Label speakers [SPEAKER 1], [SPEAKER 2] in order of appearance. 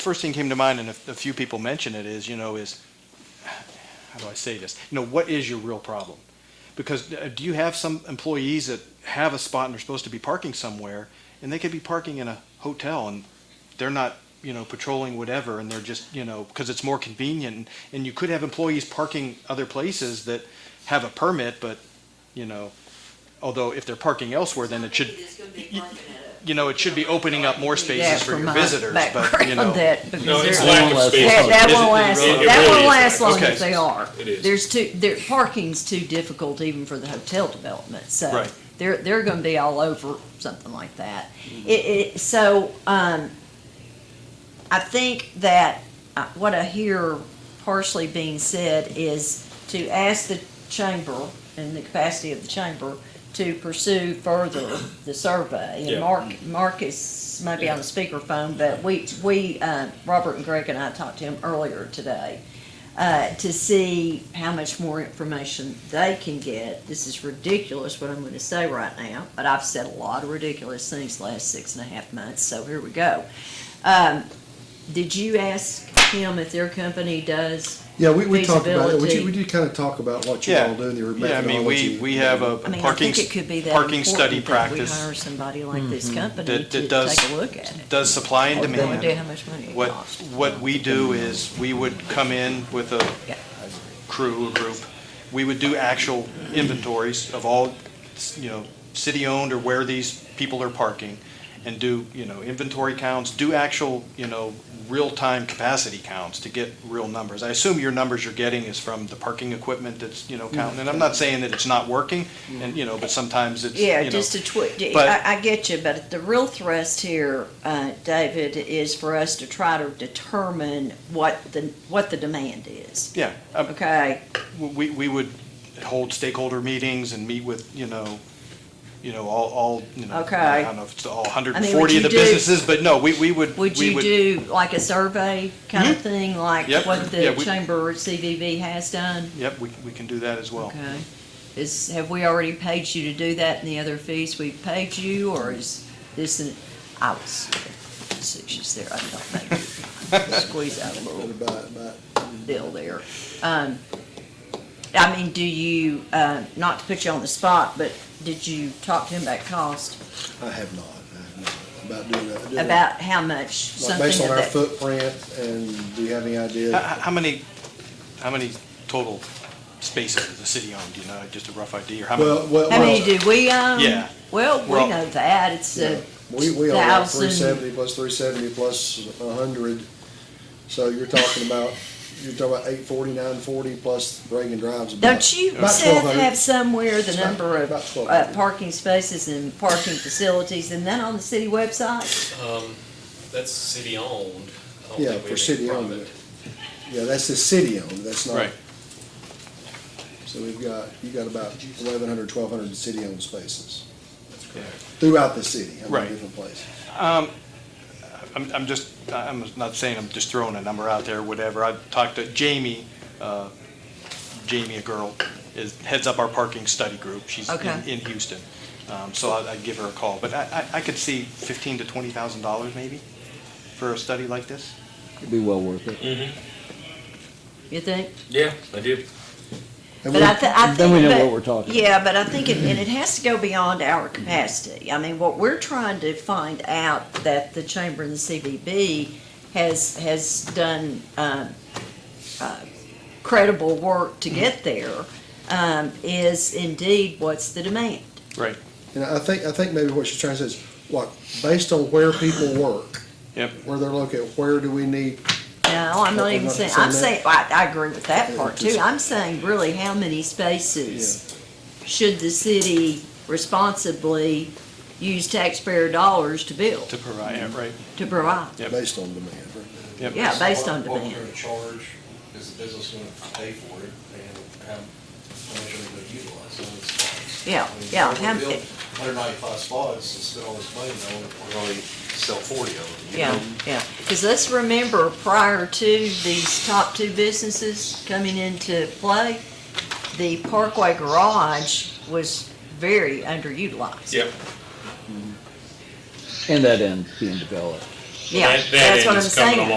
[SPEAKER 1] first thing came to mind, and a, a few people mention it, is, you know, is, how do I say this? You know, what is your real problem? Because uh, do you have some employees that have a spot and they're supposed to be parking somewhere, and they could be parking in a hotel, and they're not, you know, patrolling whatever, and they're just, you know, because it's more convenient, and you could have employees parking other places that have a permit, but, you know, although if they're parking elsewhere, then it should,
[SPEAKER 2] It's gonna be
[SPEAKER 1] y-
[SPEAKER 2] parking at a-
[SPEAKER 1] you know, it should be opening up more
[SPEAKER 3] Yeah,
[SPEAKER 1] spaces for
[SPEAKER 3] from
[SPEAKER 1] your
[SPEAKER 3] my
[SPEAKER 1] visitors, but, you
[SPEAKER 3] background,
[SPEAKER 1] know.
[SPEAKER 3] that- because
[SPEAKER 4] No, it's
[SPEAKER 3] there-
[SPEAKER 4] lack of space.
[SPEAKER 3] That, that
[SPEAKER 4] It
[SPEAKER 3] won't
[SPEAKER 4] really-
[SPEAKER 3] last,
[SPEAKER 4] it really
[SPEAKER 3] that won't
[SPEAKER 4] is.
[SPEAKER 3] last long
[SPEAKER 1] Okay.
[SPEAKER 3] as they are.
[SPEAKER 4] It is.
[SPEAKER 3] There's too, there, parking's too difficult even for the hotel development, so
[SPEAKER 1] Right.
[SPEAKER 3] they're, they're gonna be all over something like that.
[SPEAKER 1] Mm-hmm.
[SPEAKER 3] It, it, so, um, I think that uh, what I hear partially being said is to ask the chamber, in the capacity of the chamber, to pursue further the survey.
[SPEAKER 4] Yeah.
[SPEAKER 3] And Mark, Marcus may be on the speakerphone, but we, we, uh, Robert and Greg and I talked to him earlier today, uh, to see how much more information they can get. This is ridiculous what I'm gonna say right now, but I've said a lot of ridiculous things the last six and a half months, so here we go. Um, did you ask him if their company does?
[SPEAKER 5] Yeah, we, we talked about it. We
[SPEAKER 3] Feasibility.
[SPEAKER 5] did, we did kind of talk about what you
[SPEAKER 1] Yeah.
[SPEAKER 5] all do in your
[SPEAKER 1] Yeah, I mean, we,
[SPEAKER 5] methodology.
[SPEAKER 1] we have a
[SPEAKER 3] I mean, I
[SPEAKER 1] parking,
[SPEAKER 3] think it could be that
[SPEAKER 1] parking study
[SPEAKER 3] important that We
[SPEAKER 1] practice
[SPEAKER 3] hire somebody like this company
[SPEAKER 1] that,
[SPEAKER 3] to
[SPEAKER 1] that does,
[SPEAKER 3] take a look at it.
[SPEAKER 1] does supply and
[SPEAKER 3] I have no idea how
[SPEAKER 1] demand.
[SPEAKER 3] much money it
[SPEAKER 1] What,
[SPEAKER 3] costs.
[SPEAKER 1] what we do is, we would come in with a
[SPEAKER 3] Yeah.
[SPEAKER 1] crew, a group. We would do actual inventories of all, you know, city-owned or where these people are parking and do, you know, inventory counts, do actual, you know, real-time capacity counts to get real numbers. I assume your numbers you're getting is from the parking equipment that's, you know, counting. And I'm not saying that it's not working and, you know, but sometimes it's, you know.
[SPEAKER 3] Yeah, just a twit,
[SPEAKER 1] but-
[SPEAKER 3] I, I get you, but the real thrust here, uh, David, is for us to try to determine what the, what the demand is,
[SPEAKER 1] Yeah, um,
[SPEAKER 3] okay?
[SPEAKER 1] we, we would hold stakeholder meetings and meet with, you know, you know, all, all, you know,
[SPEAKER 3] Okay.
[SPEAKER 1] I don't know if it's all hundred
[SPEAKER 3] I
[SPEAKER 1] and
[SPEAKER 3] mean, would
[SPEAKER 1] forty of the
[SPEAKER 3] you do-
[SPEAKER 1] businesses, but no, we, we would, we
[SPEAKER 3] Would you do like a survey kind of thing, like
[SPEAKER 1] Yep.
[SPEAKER 3] what
[SPEAKER 1] Yeah,
[SPEAKER 3] the
[SPEAKER 1] we-
[SPEAKER 3] chamber CVV has done?
[SPEAKER 1] Yep, we, we can do that as well.
[SPEAKER 3] Okay. Is, have we already paid you to do that and the other fees we've paid you, or is this an, I was facetious there, I don't know. Squeeze out a little
[SPEAKER 5] About- about-
[SPEAKER 3] deal there. Um, I mean, do you, uh, not to put you on the spot, but did you talk to him about cost?
[SPEAKER 5] I have not, I have not, about doing that. doing that.
[SPEAKER 3] About how much
[SPEAKER 5] Like
[SPEAKER 3] something
[SPEAKER 5] based on our
[SPEAKER 3] of that?
[SPEAKER 5] footprint and do you have any
[SPEAKER 1] How,
[SPEAKER 5] idea?
[SPEAKER 1] how how many, how many total spaces does the city own, do you know, just a rough idea, or how
[SPEAKER 5] Well,
[SPEAKER 1] many?
[SPEAKER 5] well.
[SPEAKER 3] How many do we own?
[SPEAKER 1] Yeah.
[SPEAKER 3] Well, we
[SPEAKER 1] Well-
[SPEAKER 3] know that, it's
[SPEAKER 5] yeah.
[SPEAKER 3] a
[SPEAKER 5] We, we are about three
[SPEAKER 3] thousand.
[SPEAKER 5] seventy plus three seventy plus a hundred. So you're talking about, you're talking about eight forty, nine forty plus Reagan Drive's about.
[SPEAKER 3] Don't you,
[SPEAKER 5] about
[SPEAKER 3] Seth,
[SPEAKER 5] 1200.
[SPEAKER 3] have somewhere the
[SPEAKER 5] It's about-
[SPEAKER 3] number of
[SPEAKER 5] about
[SPEAKER 3] uh,
[SPEAKER 5] 1200.
[SPEAKER 3] parking spaces and parking facilities, and then on the city website?
[SPEAKER 4] Um, that's city-owned. I don't
[SPEAKER 5] Yeah,
[SPEAKER 4] think we have
[SPEAKER 5] for
[SPEAKER 4] any
[SPEAKER 5] city-owned,
[SPEAKER 4] private.
[SPEAKER 5] Yeah, that's the city owned, that's not.
[SPEAKER 1] Right.
[SPEAKER 5] So we've got, you got about 1,100, 1,200 city owned spaces
[SPEAKER 4] That's correct.
[SPEAKER 5] throughout the city, I
[SPEAKER 1] Right.
[SPEAKER 5] mean, different places.
[SPEAKER 1] Um, I'm, I'm just, I'm not saying, I'm just throwing a number out there, whatever. I talked to Jamie, uh, Jamie, a girl, is, heads up our parking study group. She's in,
[SPEAKER 3] Okay.
[SPEAKER 1] in Houston. Um, so I'd, I'd give her a call, but I, I, I could see fifteen to twenty thousand dollars maybe for a study like this.
[SPEAKER 6] It'd be well worth it.
[SPEAKER 3] You think?
[SPEAKER 4] Yeah, I do.
[SPEAKER 5] And
[SPEAKER 3] But
[SPEAKER 5] we-
[SPEAKER 3] I, th- I think.
[SPEAKER 6] Then we know
[SPEAKER 3] but-
[SPEAKER 6] what we're talking about.
[SPEAKER 3] Yeah, but I think, it- and it has to go beyond our capacity. I mean, what we're trying to find out that the chamber and the CBB has, has done, um, uh, credible work to get there, um, is indeed what's the demand.
[SPEAKER 1] Right.
[SPEAKER 5] And I think, I think maybe what she's trying to say is, what, based on where people work,
[SPEAKER 1] Yep.
[SPEAKER 5] where they're located, where do we need,
[SPEAKER 3] No, I'm not
[SPEAKER 5] I'm
[SPEAKER 3] even
[SPEAKER 5] not
[SPEAKER 3] saying,
[SPEAKER 5] saying
[SPEAKER 3] I'm
[SPEAKER 5] that.
[SPEAKER 3] saying, I, I agree with that
[SPEAKER 5] Yeah,
[SPEAKER 3] part too.
[SPEAKER 5] just-
[SPEAKER 3] I'm saying really how many spaces should the city responsibly use taxpayer dollars to build?
[SPEAKER 1] To provide, yeah, right.
[SPEAKER 3] to provide.
[SPEAKER 1] Yep.
[SPEAKER 5] based on demand? right?
[SPEAKER 1] Yep.
[SPEAKER 3] Yeah, based on
[SPEAKER 7] What we're
[SPEAKER 3] demand.
[SPEAKER 7] gonna charge is the business gonna pay for it and how much are they gonna utilize, so it's spots.
[SPEAKER 3] Yeah,
[SPEAKER 7] I mean,
[SPEAKER 3] yeah,
[SPEAKER 7] if we're
[SPEAKER 3] how-
[SPEAKER 7] building 195 spots and spend all this money, now we're only sell 40 of them. you
[SPEAKER 3] Yeah,
[SPEAKER 7] know?
[SPEAKER 3] yeah. Because let's remember, prior to these top two businesses coming into play, the Parkway Garage was very underutilized.
[SPEAKER 4] Yep.
[SPEAKER 6] And that end being developed.
[SPEAKER 3] Yeah,
[SPEAKER 4] That- that
[SPEAKER 3] that's what I'm
[SPEAKER 4] is coming
[SPEAKER 3] saying.
[SPEAKER 4] along.